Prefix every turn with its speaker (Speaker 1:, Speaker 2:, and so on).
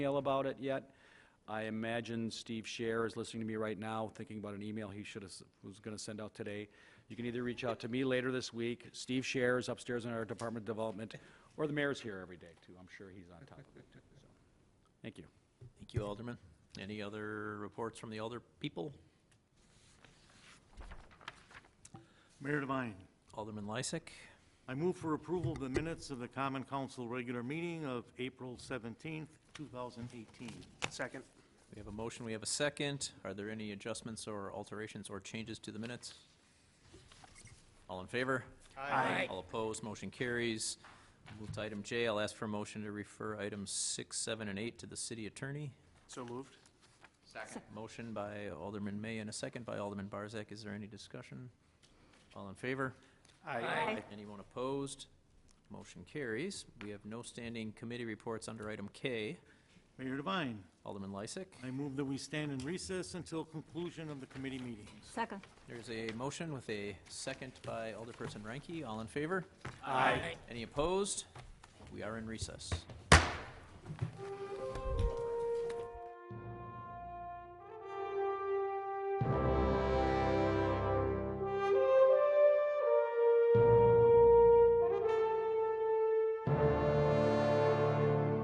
Speaker 1: email about it yet. I imagine Steve Scher is listening to me right now, thinking about an email he should have, was going to send out today. You can either reach out to me later this week, Steve Scher is upstairs in our Department of Development, or the mayor's here every day, too. I'm sure he's on top of it, too. So, Thank you.
Speaker 2: Thank you, Alderman. Any other reports from the elder people?
Speaker 3: Mayor Devine,
Speaker 2: Alderman Lysick?
Speaker 3: I move for approval of the minutes of the Common Council regular meeting of April 17th, 2018.
Speaker 4: Second.
Speaker 2: We have a motion, we have a second. Are there any adjustments or alterations or changes to the minutes? All in favor? Aye. All opposed, motion carries. Move to item J, I'll ask for a motion to refer items six, seven, and eight to the city attorney.
Speaker 4: So moved.
Speaker 2: Motion by Alderman May and a second by Alderman Barzak. Is there any discussion? All in favor? Aye. Anyone opposed? Motion carries. We have no standing committee reports under item K.
Speaker 3: Mayor Devine,
Speaker 2: Alderman Lysick,
Speaker 3: I move that we stand in recess until conclusion of the committee meetings.
Speaker 5: Second.
Speaker 2: there's a motion with a second by Alderperson Ranky. All in favor? Aye. Any opposed? We are in recess.